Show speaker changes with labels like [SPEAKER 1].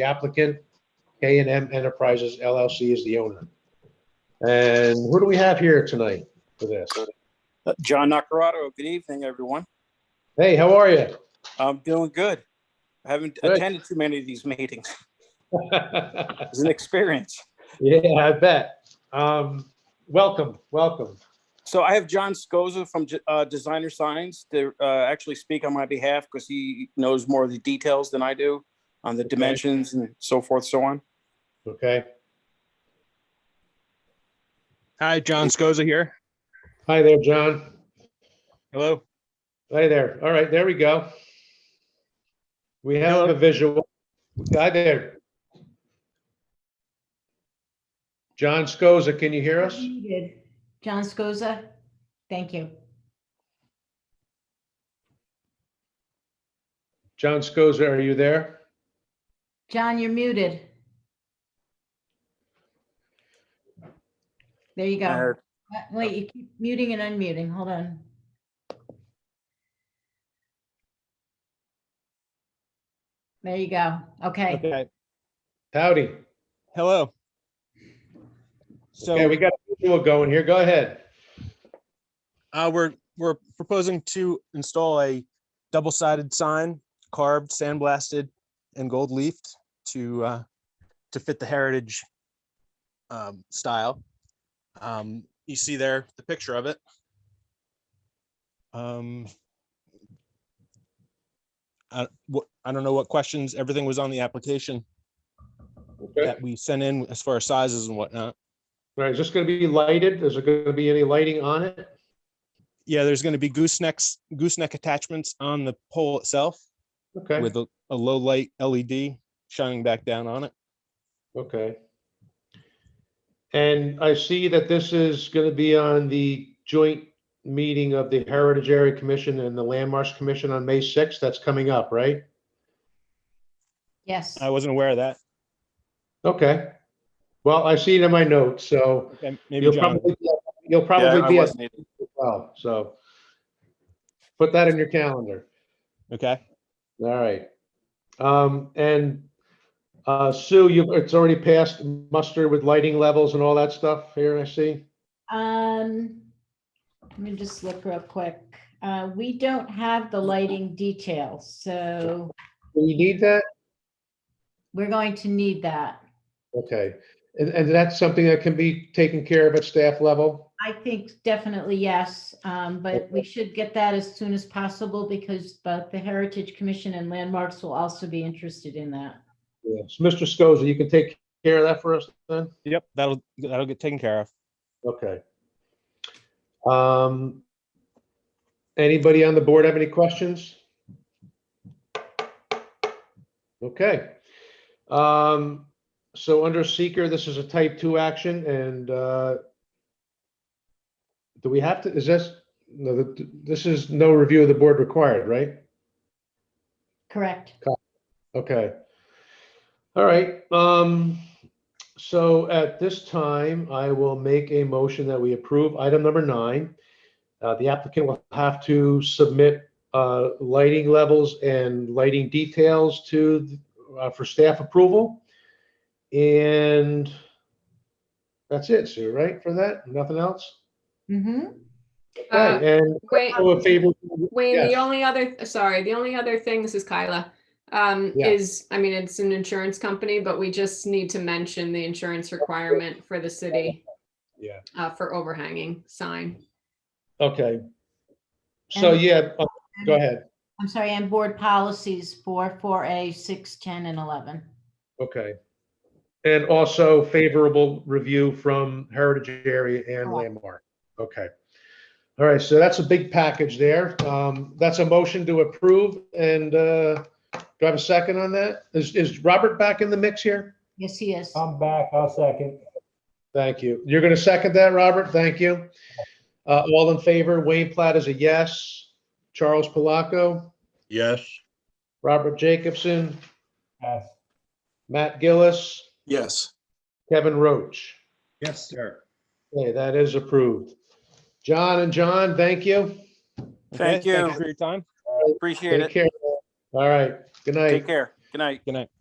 [SPEAKER 1] The applicant, K and M Enterprises LLC is the owner. And who do we have here tonight for this?
[SPEAKER 2] Uh, John Nacarado, good evening, everyone.
[SPEAKER 1] Hey, how are you?
[SPEAKER 2] I'm doing good. I haven't
[SPEAKER 1] Good.
[SPEAKER 2] attended too many of these meetings. It's an experience.
[SPEAKER 1] Yeah, I bet. Um, welcome, welcome.
[SPEAKER 2] So I have John Scosa from uh, Designer Signs to uh, actually speak on my behalf because he knows more of the details than I do on the dimensions and so forth, so on.
[SPEAKER 1] Okay.
[SPEAKER 3] Hi, John Scosa here.
[SPEAKER 1] Hi there, John.
[SPEAKER 3] Hello.
[SPEAKER 1] Hi there. All right, there we go. We have a visual. Hi there. John Scosa, can you hear us?
[SPEAKER 4] Muted. John Scosa, thank you.
[SPEAKER 1] John Scosa, are you there?
[SPEAKER 4] John, you're muted. There you go. Uh, Wait, you keep muting and unmuting. Hold on. There you go. Okay.
[SPEAKER 3] Okay.
[SPEAKER 1] Howdy.
[SPEAKER 3] Hello.
[SPEAKER 1] Okay,
[SPEAKER 3] So
[SPEAKER 1] we got a visual going here. Go ahead.
[SPEAKER 3] uh, we're we're proposing to install a double-sided sign, carved, sandblasted, and gold leafed to uh, to fit the heritage um, style. Um, you see there the picture of it. Um, I, what, I don't know what questions. Everything was on the application
[SPEAKER 1] Okay.
[SPEAKER 3] that we sent in as far as sizes and whatnot.
[SPEAKER 1] All right, is this going to be lighted? Is there going to be any lighting on it?
[SPEAKER 3] yeah, there's going to be goosenecks, gooseneck attachments on the pole itself
[SPEAKER 1] Okay,
[SPEAKER 3] with a, a low light LED shining back down on it.
[SPEAKER 1] okay. And I see that this is going to be on the joint meeting of the Heritage Area Commission and the Landmarks Commission on May 6th. That's coming up, right?
[SPEAKER 4] Yes.
[SPEAKER 3] I
[SPEAKER 1] Uh,
[SPEAKER 3] wasn't aware of that.
[SPEAKER 1] Okay. Well, I see it in my notes, so
[SPEAKER 3] Okay, Maybe
[SPEAKER 1] you'll
[SPEAKER 3] John,
[SPEAKER 1] probably, you'll
[SPEAKER 2] Yeah,
[SPEAKER 1] probably
[SPEAKER 2] I
[SPEAKER 1] be at
[SPEAKER 2] wasn't either.
[SPEAKER 1] as well, so. Put that in your calendar.
[SPEAKER 3] okay.
[SPEAKER 1] All right. Um, and, uh, Sue, you, it's already passed muster with lighting levels and all that stuff here, I see.
[SPEAKER 4] Um, let me just look real quick. Uh, we don't have the lighting details, so
[SPEAKER 1] Do we need that?
[SPEAKER 4] we're going to need that.
[SPEAKER 1] Okay. And, and that's something that can be taken care of at staff level?
[SPEAKER 4] I think definitely yes, um, but we should get that as soon as possible because both the Heritage Commission and Landmarks will also be interested in that.
[SPEAKER 1] Yes. Mr. Scosa, you can take care of that for us then?
[SPEAKER 3] Yep, that'll that'll get taken care of.
[SPEAKER 1] Okay. Um, anybody on the board have any questions? Okay. Um, so under seeker, this is a type two action and, uh, do we have to, is this, no, th- this is no review of the board required, right?
[SPEAKER 4] Correct.
[SPEAKER 1] Okay. All right, um, so at this time, I will make a motion that we approve item number nine. Uh, the applicant will have to submit, uh, lighting levels and lighting details to, uh, for staff approval. And that's it, Sue, right, for that? Nothing else?
[SPEAKER 4] hmm
[SPEAKER 5] Uh,
[SPEAKER 1] Okay, and
[SPEAKER 5] Wait,
[SPEAKER 1] oh, a favor.
[SPEAKER 5] Wayne, the
[SPEAKER 1] yes.
[SPEAKER 5] only other, sorry, the only other thing, this is Kyla, um,
[SPEAKER 1] Yeah.
[SPEAKER 5] is, I mean, it's an insurance company, but we just need to mention the insurance requirement for the city.
[SPEAKER 1] Yeah.
[SPEAKER 5] Uh, for overhanging sign.
[SPEAKER 1] Okay. So,
[SPEAKER 4] And-
[SPEAKER 1] yeah, oh, go ahead.
[SPEAKER 4] I'm sorry, and board policies for four A, six, ten, and eleven.
[SPEAKER 1] Okay. And also favorable review from Heritage Area and
[SPEAKER 4] Correct.
[SPEAKER 1] Landmark. Okay. All right, so that's a big package there. Um, that's a motion to approve and, uh, do I have a second on that? Is, is Robert back in the mix here?
[SPEAKER 4] Yes, he
[SPEAKER 1] Oh,
[SPEAKER 4] is.
[SPEAKER 6] I'm back, I'll second.
[SPEAKER 1] Thank you. You're gonna second that, Robert? Thank you. Uh, all in favor, Wayne Platt is a yes. Charles Palaco,
[SPEAKER 7] Yes,
[SPEAKER 1] Robert Jacobson,
[SPEAKER 6] Yes.
[SPEAKER 1] Matt Gillis,
[SPEAKER 2] Yes.
[SPEAKER 1] Kevin Roach.
[SPEAKER 7] yes, sir.
[SPEAKER 1] Okay, that is approved. John and John, thank you.
[SPEAKER 3] Okay,
[SPEAKER 2] Thank you.
[SPEAKER 3] for your time.
[SPEAKER 2] Appreciate
[SPEAKER 1] Take
[SPEAKER 2] it.
[SPEAKER 1] care. All right, good night.
[SPEAKER 2] Take care. Good night.
[SPEAKER 3] Good night.